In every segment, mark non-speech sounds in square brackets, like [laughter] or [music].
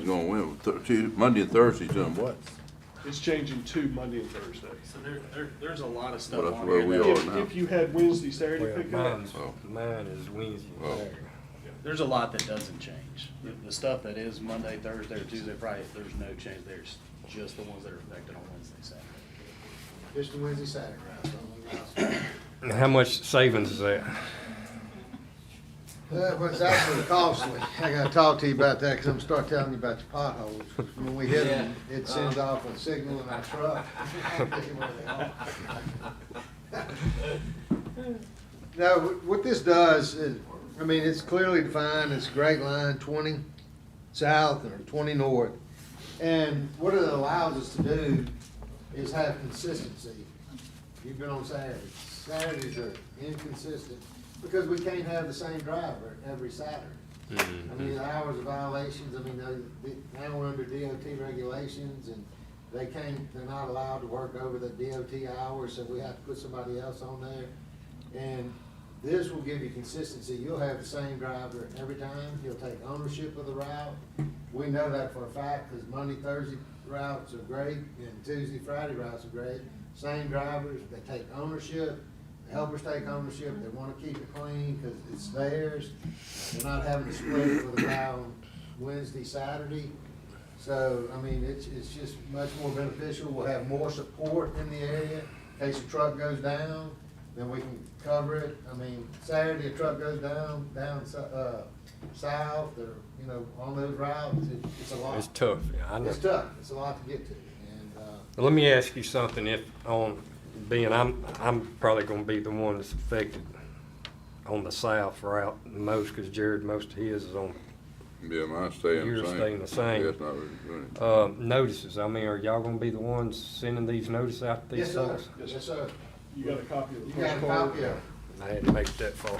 It's gonna win, Thur- Tuesday- Monday and Thursday's doing what? It's changing to Monday and Thursday. So there, there, there's a lot of Well, stuff that's on where here. we that- are. now. If, if you had Wednesday, Saturday Well, pickup, mine's, Oh. mine is Wednesday, Oh. Saturday. There's a lot that doesn't change. The, the stuff that is Monday, Thursday, or Tuesday, Friday, there's no change. There's just the ones that are affected on Wednesday, Saturday. Just a Wednesday, Saturday. And How much savings is that? That was actually costly. I gotta talk to you about that, cause I'm gonna start telling you about your potholes. When we hit them, it sends off a signal in our truck. [laughs] Now, wh- what this does is, I mean, it's clearly defined, it's grade line twenty south or twenty north. And what it allows us to do is have consistency. You've been on Saturdays. Saturdays are inconsistent because we can't have the same driver every Saturday. I mean, the hours of violations, I mean, they- they- now we're under DOT regulations and they can't, they're not allowed to work over the DOT hours, so we have to put somebody else on there. And this will give you consistency. You'll have the same driver every time. He'll take ownership of the route. We know that for a fact, because Monday, Thursday routes are great, and Tuesday, Friday routes are great. Same drivers, they take ownership, the helpers take ownership, they wanna keep it clean, because it's theirs. They're not having to split it for the route on Wednesday, Saturday. So, I mean, it's, it's just much more beneficial, we'll have more support in the area, in case a truck goes down, then we can cover it. I mean, Saturday, a truck goes down, down, so- uh, south, or, you know, on those routes, it- it's a lot. It's tough, yeah, I know. It's tough, it's a lot to get to, and, uh, Let me ask you something, if, on, being, I'm, I'm probably gonna be the one that's affected on the south route the most, cause Jared, most of his is on, Yeah, mine's staying the same. Yours staying the same. Yeah, it's not really doing it. uh, notices. I mean, are y'all gonna be the ones sending these notices out to yes, these sir, folks? yes, sir. you got a copy of the You first got a card. copy of it. I had to make it that far.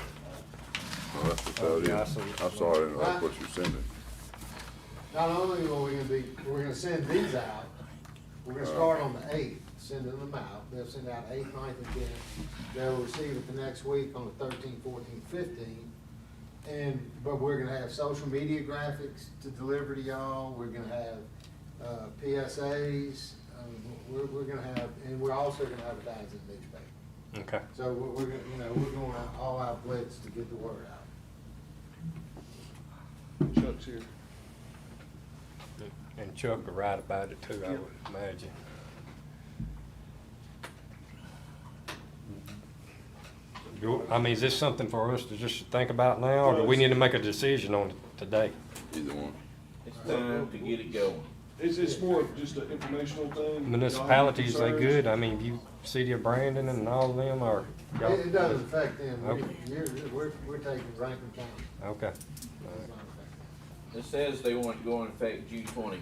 Oh, that's about it. Okay, I I see what you're saw it, and that's saying. what you're sending. Not only are we gonna be, we're gonna send these out, we're gonna start on the eighth, sending them out, they'll send out eighth, ninth, and tenth. They'll receive it the next week on the thirteenth, fourteenth, fifteenth. And, but we're gonna have social media graphics to deliver to y'all, we're gonna have, uh, PSAs, um, we're, we're gonna have, and we're also gonna advertise in the newspaper. Okay. So we're, we're gonna, you know, we're going out, all out blitz to get the word out. Chuck's here. And Chuck will write about it too, I Yeah. would imagine. Do- I mean, is this something for us to just think about now, or do we need to make a decision on it today? Either one. It's time to get it going. It's, it's more of just an informational thing. Municipalities, Y'all they have any good, I mean, you, city of Brandon and all of them are, y'all- It, it doesn't affect them, We- Okay. you're, we're, we're taking Rankin County. okay. It's not affected. It says they want it to go in effect June twenty,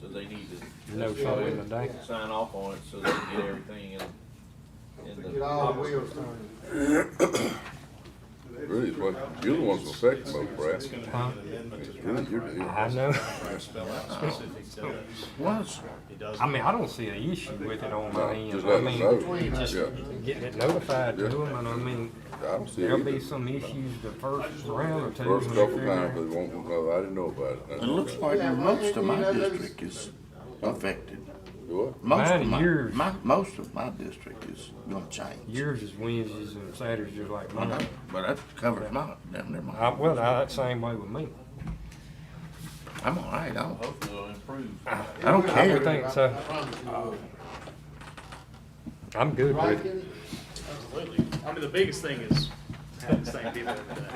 so they need to. No so trouble they in the day. Sign off on it so they can get everything in, in the. Get all the wheels turning. concerns? Really, it's what, you're the ones who affect folks, Brad. Huh? Really, you're the- I know, What? I mean, I don't see an issue with it on my No, end, just I let them know. mean, Yeah, getting it notified to Yeah. them, and I mean, I don't see it there'll be either. some issues the first round or two. First when they're couple figuring times, they won't know, I didn't know about it. It looks like Yeah, most of you my know, those- district is affected. What? Most Mine of and my, yours. my, most of my district is gonna change. Yours is Wednesdays and Saturdays, just like I know, mine. But that covers my, damn near I, my, well, I, that same way with me. I'm all right, I don't, Hopefully it'll improve. I don't I would care. think so. I promise you will. I'm good with it. Rankin, Absolutely. I mean, the biggest thing is having the same people every day.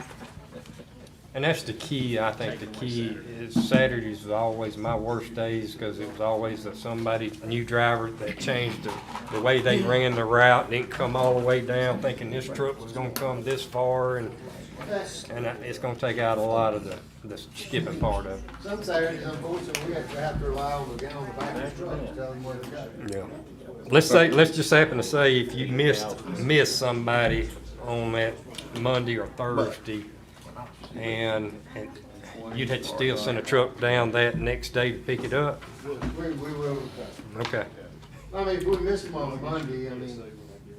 And that's the key, I think the key is Saturdays was always my worst days because it was always that somebody, new driver that changed the, the way they ran the route, didn't come all the way down thinking this truck was gonna come this far and, that's- and that- it's gonna take out a lot of the, the skipping part of it. Some Saturdays, unfortunately, we have to have to rely on the guy on the back of the truck to tell them where to go. Yeah. Let's say, let's just happen to say if you missed, missed somebody on that Monday or Thursday, and, and you'd have to still send a truck down that next day to pick it up, We, we will, recover. okay. I mean, if we miss them on Monday, I mean,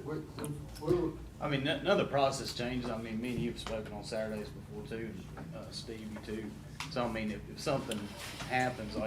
we, we, we- I mean, none none of the process changes. I mean, me and you have spoken on Saturdays before too, and, uh, Steve, you too. So I mean, if, if something happens,